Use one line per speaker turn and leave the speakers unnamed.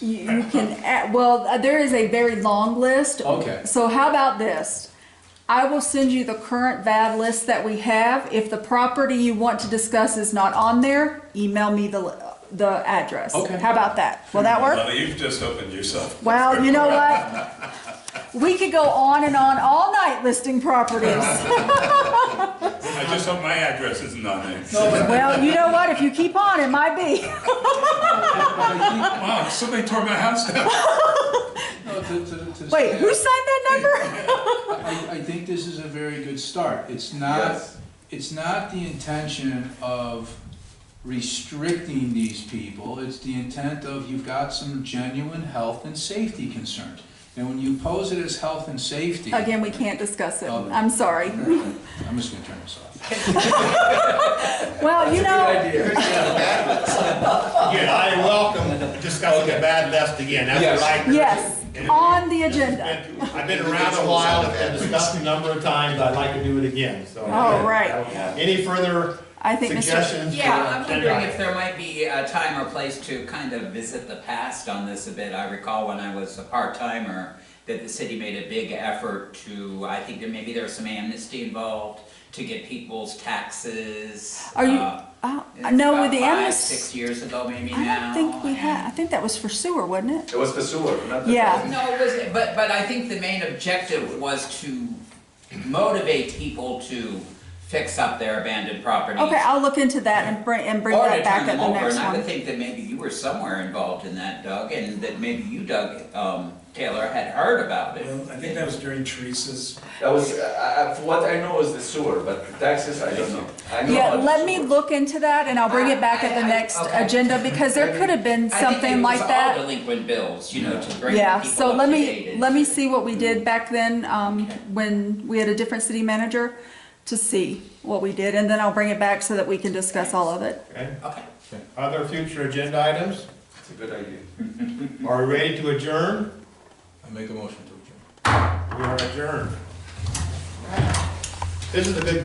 You, you can add, well, uh, there is a very long list.
Okay.
So how about this? I will send you the current VAD list that we have. If the property you want to discuss is not on there, email me the, li- the address.
Okay.
How about that? Will that work?
Well, you've just opened yourself.
Well, you know what? We could go on and on all night listing properties.
I just hope my address isn't on there.
Well, you know what? If you keep on, it might be.
Wow, somebody tore my house down.
No, to- to- to
Wait, who
stay-
signed that number?
I, I think this is a very good start. It's not,
Yes.
it's not the intention of restricting these people. It's the intent of you've got some genuine health and safety concerns. And when you pose it as health and safety.
Again, we can't discuss it.
Oh,
I'm sorry.
I'm just gonna turn this off.
Well, you know,
Yeah, I welcome discussing the bad list again, that's what I.
yes, on the agenda.
I've been around a while, it's been discussed a number of times, I'd like to do it again, so.
All right.
Any further
I think Mr.
suggestions?
Yeah, I'm
for-
wondering if there might be a time or place to kind of visit the past on this a bit. I recall when I was a part-timer, that the city made a big effort to, I think that maybe there was some amnesty involved, to get people's taxes.
Are you,
uh,
oh,
it's
no,
about
with the
five,
amnesty,
Six years ago, maybe
I
now.
don't think we had, I
and-
think that was for sewer, wasn't it?
It was the sewer, not the.
Yeah.
No, it was, but, but I think the main objective was to motivate people to fix up their abandoned properties.
Okay, I'll look into that and bring, and bring
Or to
that back
turn
at
them
the
over,
next
and I would
one.
think that maybe you were somewhere involved in that, Doug, and that maybe you, Doug, um, Taylor, had heard about it.
Well, I think that was during Teresa's,
That was, I, I, for what I know was the sewer, but the taxes, I don't know. I know
Yeah,
about the
let me
sewer.
look into that and I'll bring it back at the
I- I-
next
okay.
agenda because there could have been something like
I think
that.
it was all delinquent bills, you know, to bring people
Yeah,
up to date.
so let me,
and-
let me see what we did back then, um, when we had a different city manager to see what we did and then I'll bring it back so that we can discuss all of it.
Okay.
Okay.
Other future agenda items?
It's a good idea.
Are we ready to adjourn?
I make a motion to adjourn.
We are adjourned. This is the big